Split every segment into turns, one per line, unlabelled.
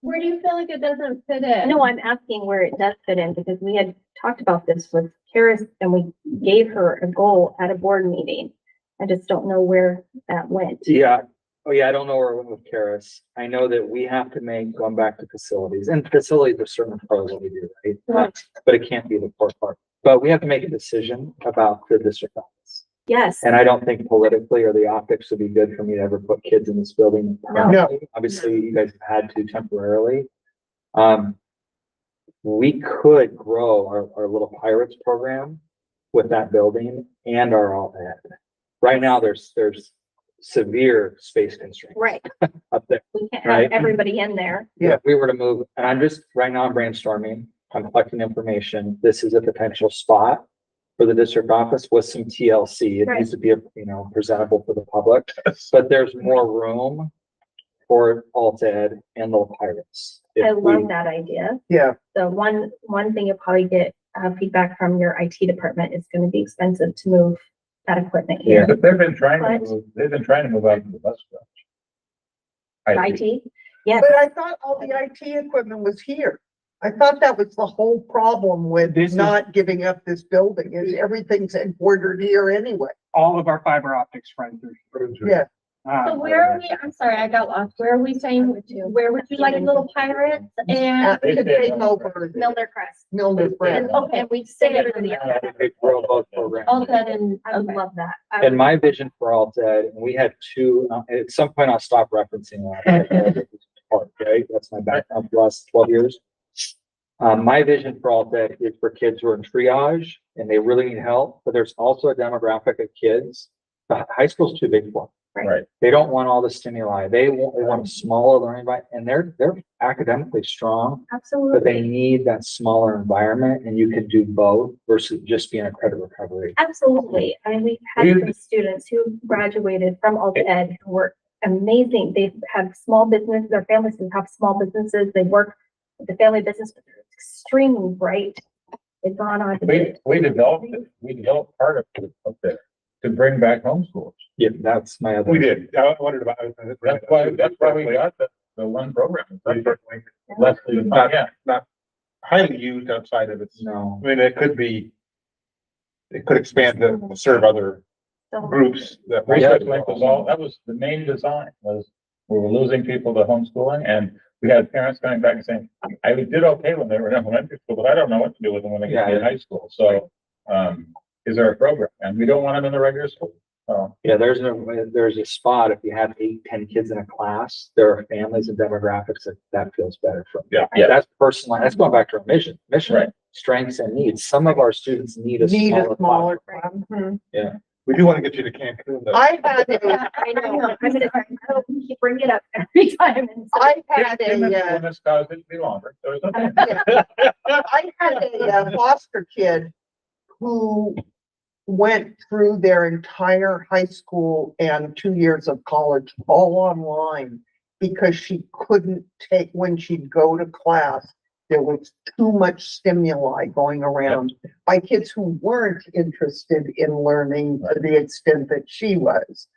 Where do you feel like it doesn't fit in?
No, I'm asking where it does fit in because we had talked about this with Karis and we gave her a goal at a board meeting. I just don't know where that went.
Yeah, oh yeah, I don't know where we're with Karis. I know that we have to make, going back to facilities, and facilities are certain pros that we do, right?
Right.
But it can't be the core part, but we have to make a decision about the district office.
Yes,
And I don't think politically or the optics would be good for me to ever put kids in this building.
No.
Obviously, you guys have had to temporarily. Um, we could grow our, our little pirates program with that building and our all ed. Right now, there's, there's severe space constraints
right.
up there.
We can't
Right.
have everybody in there.
Yeah, if we were to move, and I'm just, right now I'm brainstorming, I'm collecting information, this is a potential spot for the district office with some TLC, it
Right.
needs to be, you know, presentable for the public, but there's more room for alt ed and little pirates. if
I
we-
love that idea.
Yeah.
The one, one thing you'll probably get uh, feedback from your IT department is going to be expensive to move that equipment here.
But they've been trying to,
But-
move. they've been trying to move out to the bus garage. I think.
IT, yes,
But I thought all the IT equipment was here. I thought that was the whole problem with
This is-
not giving up this building is everything's embroidered here anyway.
all of our fiber optics friends.
Yeah.
Uh,
So where are we, I'm sorry, I got lost. Where are we saying, where would you like a little pirate and
That could take over
Miller Crest.
Milner
And,
Brand.
okay, we say everybody else,
I think they grow both programs.
all that and,
I would
okay.
love that. I
And
would-
my vision for alt ed, and we had two, uh, at some point I'll stop referencing that. Part, right? That's my background for the last twelve years. Um, my vision for alt ed is for kids who are in triage and they really need help, but there's also a demographic of kids. uh, High school's too big for them.
Right.
They don't want all the stimuli. They want, they want a smaller learning environment and they're, they're academically strong. But they
Absolutely,
need that smaller environment and you can do both versus just being a credit recovery.
absolutely. I mean, we've had
We-
some students who graduated from alt ed who were amazing. They have small business, their families who have small businesses. They work with the family business, but they're extremely bright. They've gone on to
We,
do
we developed, it. we developed part of it up there to bring back homeschoolers.
Yeah, that's my other.
We did. I wondered about.
That's why, that's why we got the, the one program. That's what Leslie,
Not-
yeah,
Highly used outside of its,
No.
I mean, it could be, it could expand to serve other
so much.
groups that.
research link was all, that was the main design was, we were losing people to homeschooling and we had parents coming back and saying, I did okay when they were in elementary school, but I don't know what to do with them when they get to
Yeah.
high school. So, um, is there a program? And we don't want them in the regular school. So
Yeah, there's no, there's a spot, if you have eight, ten kids in a class, there are families and demographics that that feels better for.
Yeah, yeah.
That's personal, that's going back to our mission,
Right.
mission, strengths and needs. Some of our students need a
Need a
smaller class.
smaller one.
We do want to get you to Cancun though.
I had a,
I know, I'm gonna, I'll bring it up every time. and so-
I had
Give them
a,
the
uh,
one that's caused it to be longer. So it's okay.
I had a uh, foster kid who went through their entire high school and two years of college all online because she couldn't take, when she'd go to class, there was too much stimuli going around by kids who weren't interested in learning to the extent that she was.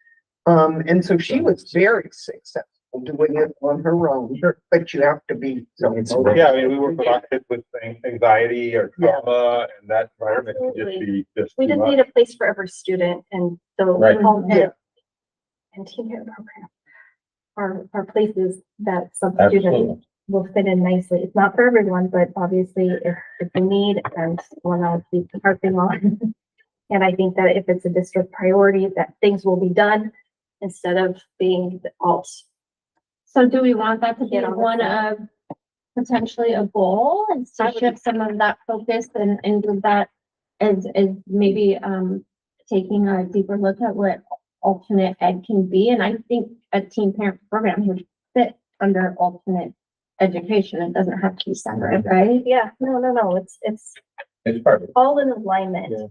Um, and so she was very successful doing it on her own, but you have to be.
It's-
motivated.
Yeah, I mean, we work with our kids with an- anxiety or
Yeah.
trauma and that environment can just
Absolutely.
be just.
We
too
just
much.
need a place for every student and so.
Right.
home
Yeah.
ed And team care program are, are places that some
uh,
students
Absolutely.
will fit in nicely. It's not for everyone, but obviously if, if we need and one of the parking lot. And I think that if it's a district priority, that things will be done instead of being the alt.
So do we want that to be
Get on the
one of potentially a goal and
I
to
would-
shift some of that focus and, and with that is, is maybe, um, taking a deeper look at what alternate ed can be. And I think a teen parent program would fit under alternate education. It doesn't have to be separate, right?
Yeah, no, no, no, it's, it's
It's part of it.
all in alignment.
Yeah.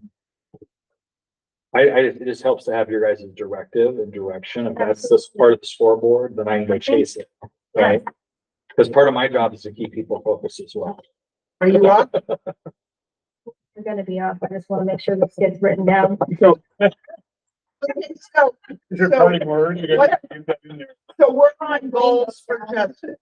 I, I, just- it just helps to have your guys' directive and direction. If that's this part of the scoreboard, then I can go chase it, right? Because part of my job is to keep people focused as well.
Are you up?
We're gonna be off. I just wanna make sure this gets written down.
Okay, So,
Is there
So-
parting words? You're gonna
What-
use that in there.
so we're on goals for Justin.